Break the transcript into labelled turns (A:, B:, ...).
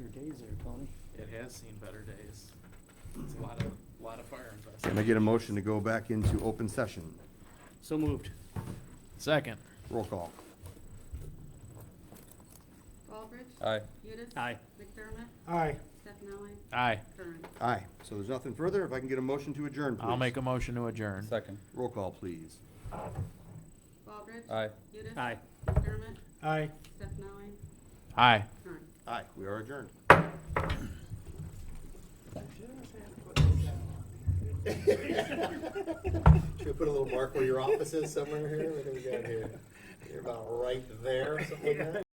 A: days there, Tony.
B: It has seen better days. It's a lot of, lot of fire
C: Can I
B: investigation.
C: get a motion to go back into open session?
A: So moved.
B: Second.
C: Roll call.
D: Baldridge.
E: Aye.
D: Udis.
A: Aye.
D: McDermott.
A: Aye.
D: Stefani.
B: Aye.
D: Kern.
C: Aye. So there's nothing further. If I can get a motion to adjourn, please.
B: I'll make a motion to adjourn.
E: Second.
C: Roll call, please.
D: Baldridge.
E: Aye.
D: Udis.
A: Aye.
D: McDermott.
A: Aye.
D: Stefani.
B: Aye.
D: Kern.
C: Aye, we are adjourned.
F: Should we put a little mark where your office is somewhere here? What do we got here? You're about right there, something like that?